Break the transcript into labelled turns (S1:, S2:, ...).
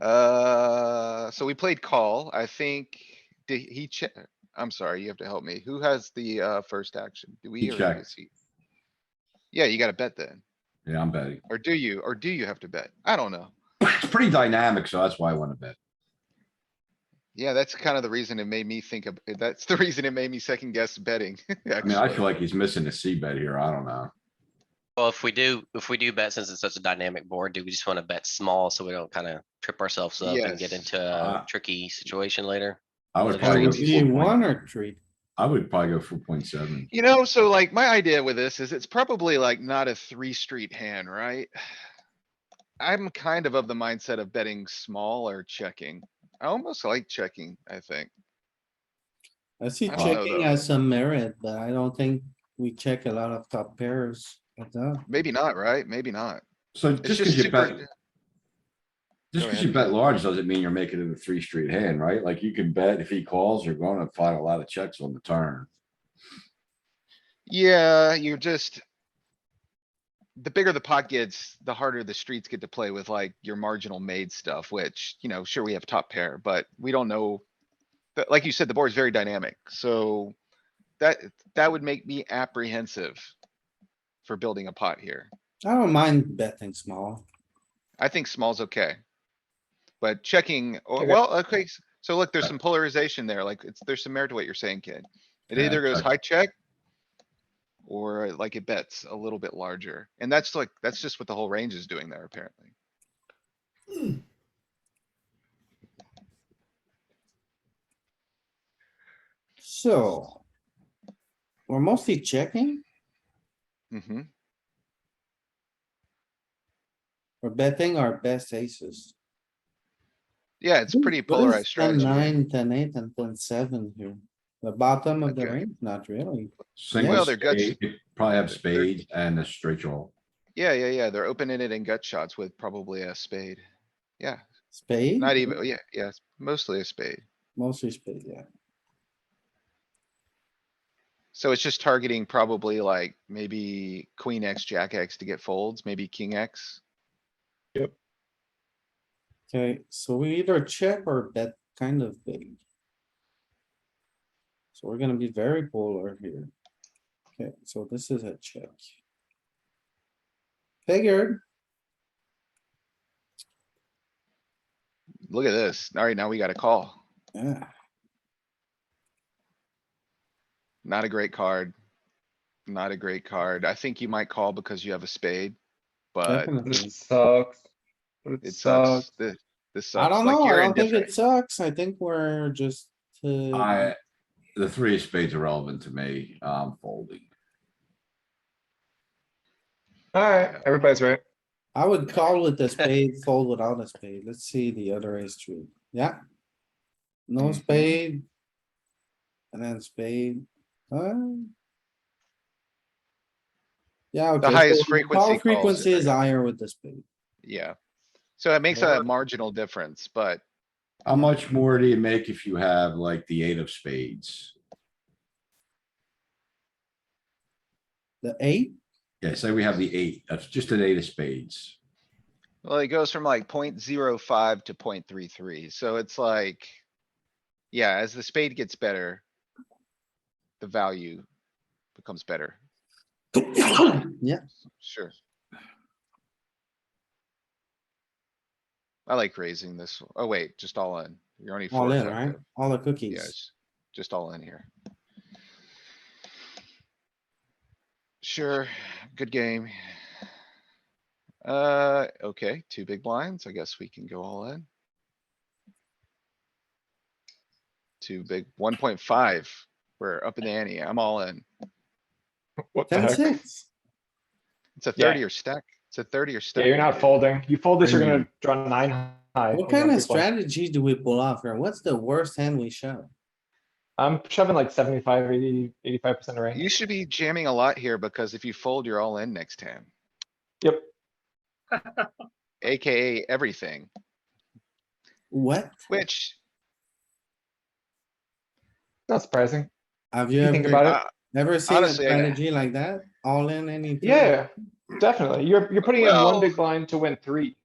S1: Uh, so we played call. I think, did he check? I'm sorry, you have to help me. Who has the, uh, first action? Do
S2: He
S1: we? or
S2: checked.
S1: does he? Yeah, you gotta bet then.
S2: Yeah, I'm betting.
S1: Or do you, or do you have to bet? I don't know.
S2: It's pretty dynamic, so that's why I wanna bet.
S1: Yeah, that's kind of the reason it made me think of, that's the reason it made me second guess betting.
S2: I mean, I
S1: actually.
S2: feel like he's missing a C bet here. I don't know.
S3: Well, if we do, if we do bet, since it's such a dynamic board, do we just wanna bet small so we don't kinda trip ourselves up and get
S1: Yes.
S3: into a
S2: Uh,
S3: tricky situation later?
S2: I would
S3: Well,
S2: probably
S3: you
S2: go.
S3: it's
S2: four
S4: Need
S2: point-
S4: one or three?
S2: I would probably go four point seven.
S1: You know, so like my idea with this is it's probably like not a three street hand, right? I'm kind of of the mindset of betting small or checking. I almost like checking, I think.
S4: I see
S1: I don't know,
S4: checking
S1: though.
S4: has some merit, but I don't think we check a lot of top pairs. like that.
S1: Maybe not, right? Maybe not.
S2: So
S1: It's
S2: just
S1: just
S2: cause you bet,
S1: super,
S2: just
S1: Go
S2: cause
S1: ahead.
S2: you bet large doesn't mean you're making it a three street hand, right? Like you can bet if he calls, you're gonna find a lot of checks on the turn.
S1: yeah, you're just. The bigger the pot gets, the harder the streets get to play with like your marginal made stuff, which, you know, sure, we have top pair, but we don't know. But like you said, the board's very dynamic, so that, that would make me apprehensive. For building a pot here.
S4: I don't mind betting small.
S1: I think small's okay. But checking, oh,
S4: Okay.
S1: well, okay, s- so look, there's
S2: Uh,
S1: some polarization there, like it's, there's some merit to what you're saying, kid. It
S2: Yeah,
S1: either goes
S2: check.
S1: high check. Or like it bets a little bit larger, and that's like, that's just what the whole range is doing there apparently.
S4: So. We're mostly checking
S1: hmm
S4: We're betting our best aces.
S1: yeah, it's pretty
S4: What is
S1: polarized
S4: 10,
S1: strategy.
S4: Nine, ten, eight and ten, seven here. The bottom of the
S1: Okay.
S4: range, not really.
S2: Single
S1: Well, they're guts-
S2: spade, you probably have spades and a straight draw.
S1: Yeah, yeah, yeah, they're opening it in gut shots with probably a spade,
S4: Spade?
S1: not even, yeah, yeah, it's mostly a spade.
S4: Mostly spade, yeah.
S1: So it's just targeting probably like maybe queen X, jack X to get folds, maybe king X.
S4: Okay, so we either check or bet kind of big. So we're gonna be very polar here. Okay, so this is a check. Figured,
S1: Look at this. Alright, now we got a call.
S4: yeah,
S1: Not a great card. Not a great card. I think you might call because you have a spade, but
S4: definitely.
S5: sucks.
S1: it sucks. The, this
S4: I
S1: sucks.
S4: don't
S1: Like,
S4: know, I
S1: you're
S4: don't think it
S1: indifferent.
S4: sucks, I think we're just, uh,
S2: I, the three of spades are relevant to me, um, folding.
S5: Alright, everybody's right.
S4: I would call with a spade, fold without a spade, let's see the other ace tree, yeah. No
S1: Mhm.
S4: spade. And then spade, uh. Yeah. okay, so
S1: highest
S4: the
S1: frequency
S4: call
S1: calls it,
S4: Frequency is
S1: yeah.
S4: higher with the spade.
S1: Yeah. So it makes
S5: Yeah.
S1: a marginal difference, but
S2: How much more do you make if you have like the eight of spades?
S4: The eight,
S2: Yeah, say we have the eight, that's just an eight of spades.
S1: well, it goes from like 0.05 to 0.33. So it's like, yeah, as the spade gets better, the value becomes better.
S4: yeah,
S1: Sure. I like raising this. one. Oh, wait, just all in. You're only
S4: all
S1: four.
S4: in, right? All the cookies.
S1: Yes, just all in here. Sure, good game. Uh, okay, two big blinds. I guess we can go all in. Two big, one point five. We're up in the ante. I'm all in.
S5: What the
S4: Ten,
S5: heck?
S4: six.
S1: It's a
S5: Yeah.
S1: thirty or stack. It's a thirty or stack.
S5: Yeah, you're not folding. You fold this, you're
S2: Mhm.
S5: gonna draw nine high.
S4: What
S5: and you're
S4: kind of
S5: gonna be fine.
S4: strategy do we pull off here? What's the worst hand we shove?
S5: I'm shoving like 75, 80, 85 percent
S1: You
S5: range.
S1: should be jamming a lot here because if you fold, you're all in next time.
S5: Yep.
S1: AKA everything,
S4: What?
S1: which
S5: Not surprising.
S4: Have you
S5: You think
S4: ever,
S5: about it.
S1: uh,
S4: ever seen a
S1: honestly, I-
S4: strategy like that? All in anything?
S5: Yeah, definitely. You're, you're putting in
S1: Well-
S5: one big blind to win three.